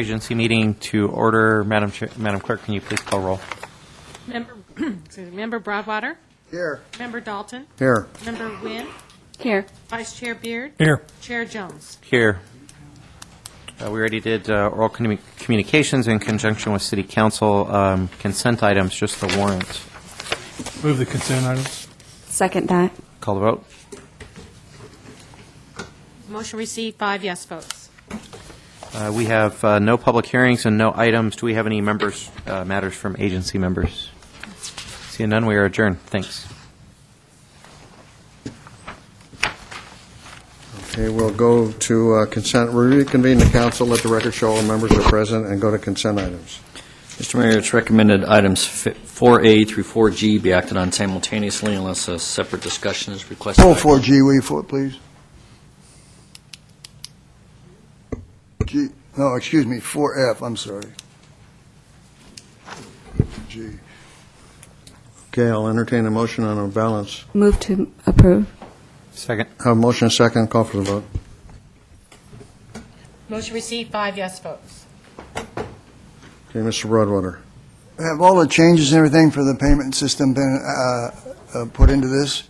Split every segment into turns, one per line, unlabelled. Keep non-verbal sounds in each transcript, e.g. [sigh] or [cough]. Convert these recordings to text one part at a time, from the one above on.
Agency meeting to order. Madam Chair- Madam Clerk, can you please call roll?
Member, [clears throat] excuse me, Member Broadwater,
Here.
Member Dalton,
Here.
Member Wynne,
Here.
Vice Chair Beard,
Here.
Chair Jones.
Here. Uh, We already did uh, oral commu- communications in conjunction with city council um, consent items, just the warrant.
Move the consent items.
Second that.
Call the vote.
Motion received, five yes votes.
Uh, We have uh, no public hearings and no items. Do we have any members, uh, matters from agency members? Seeing none, we are adjourned. Thanks.
Okay, we'll go to uh, consent, We reconvene the council, let the record show all members are present, and go to consent items.
Mr. Mayor, it's recommended items fi- 4A through 4G be acted on simultaneously unless a separate discussion is requested.
Roll for G, will you, for, please? G, no, excuse me, 4F, I'm sorry. G.
Okay, I'll entertain a motion on a balance.
Move to approve.
Second.
Have a motion, a second, call for the vote.
Motion received, five yes votes.
Okay, Mr. Broadwater.
Have all the changes and everything for the payment system been uh, uh, put into this?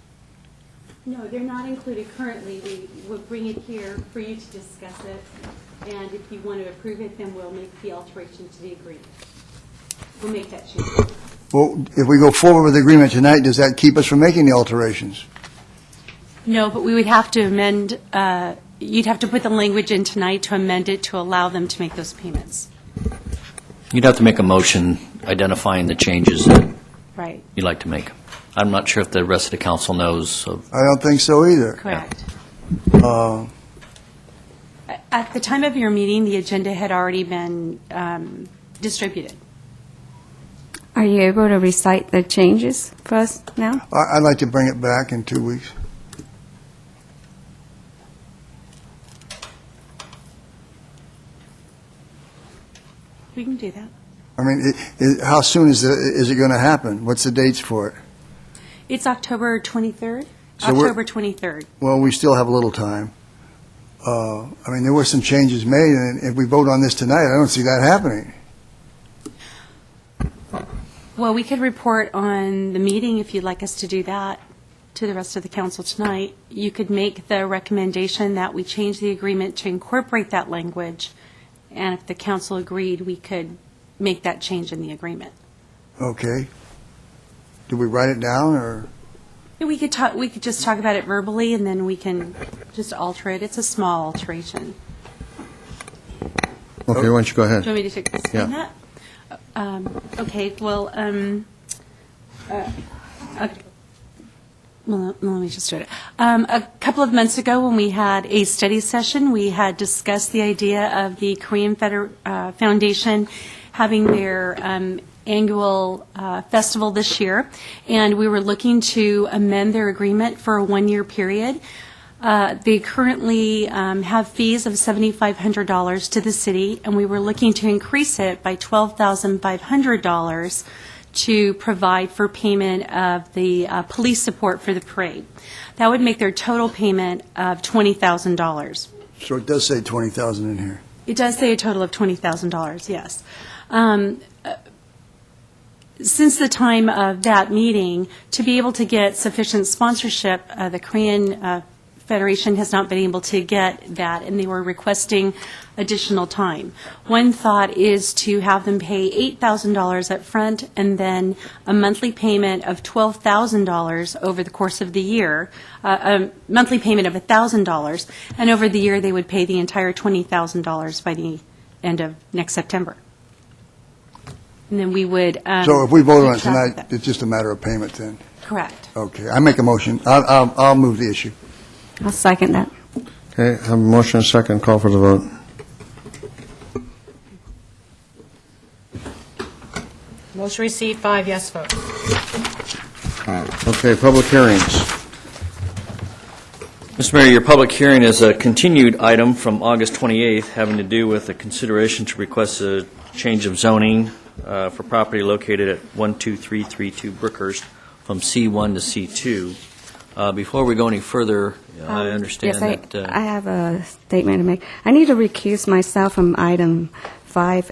No, they're not included currently. We will bring it here for you to discuss it, and if you want to approve it, then we'll make the alteration to the agreement. We'll make that change.
Well, if we go forward with the agreement tonight, does that keep us from making the alterations?
No, but we would have to amend, uh, you'd have to put the language in tonight to amend it to allow them to make those payments.
You'd have to make a motion identifying the changes that
Right,
you'd like to make. I'm not sure if the rest of the council knows of,
I don't think so either.
correct.
Uh,
A- At the time of your meeting, the agenda had already been um, distributed.
Are you able to recite the changes for us now?
I- I'd like to bring it back in two weeks.
We can do that.
I mean, i- i- how soon is the- is it going to happen? What's the dates for it?
It's October 23rd?
So we're-
October 23rd.
Well, we still have a little time. Uh, I mean, there were some changes made, and if we vote on this tonight, I don't see that happening.
Well, we could report on the meeting if you'd like us to do that to the rest of the council tonight. You could make the recommendation that we change the agreement to incorporate that language, and if the council agreed, we could make that change in the agreement.
Okay. Do we write it down, or,
And We could talk, we could just talk about it verbally, and then we can just alter it. It's a small alteration.
Okay, why don't you go ahead?
Do you want me to take- explain
Yeah.
that? Um, Okay, well, um, uh, okay. Well, let- let me just do it. Um, A couple of months ago, when we had a study session, we had discussed the idea of the Korean Feder- uh, Foundation having their um, annual uh, festival this year, and we were looking to amend their agreement for a one-year period. Uh, They currently um, have fees of $7,500 to the city, and we were looking to increase it by $12,500 to provide for payment of the uh, police support for the parade. That would make their total payment of $20,000.
so it does say 20,000 in here.
It does say a total of $20,000, yes. Um, uh, Since the time of that meeting, to be able to get sufficient sponsorship, uh, the Korean uh, Federation has not been able to get that, and they were requesting additional time. One thought is to have them pay $8,000 upfront and then a monthly payment of $12,000 over the course of the year, uh, a monthly payment of $1,000, and over the year, they would pay the entire $20,000 by the end of next September. And then we would. um,
So if we vote on it
keep track of
tonight,
that.
it's just a matter of payment then?
Correct.
Okay, I make a motion. I'll- I'll I'll move the issue.
I'll second that.
Okay, have a motion, a second, call for the vote.
Motion received, five yes votes.
Okay, public hearings.
Mr. Mayor, your public hearing is a continued item from August 28th having to do with a consideration to request a change of zoning uh, for property located at 12332 Brookhurst from C1 to C2. Uh, Before we go any further, I
Um,
understand
yes,
that... uh,
I, I have a statement to make. I need to recuse myself from item 5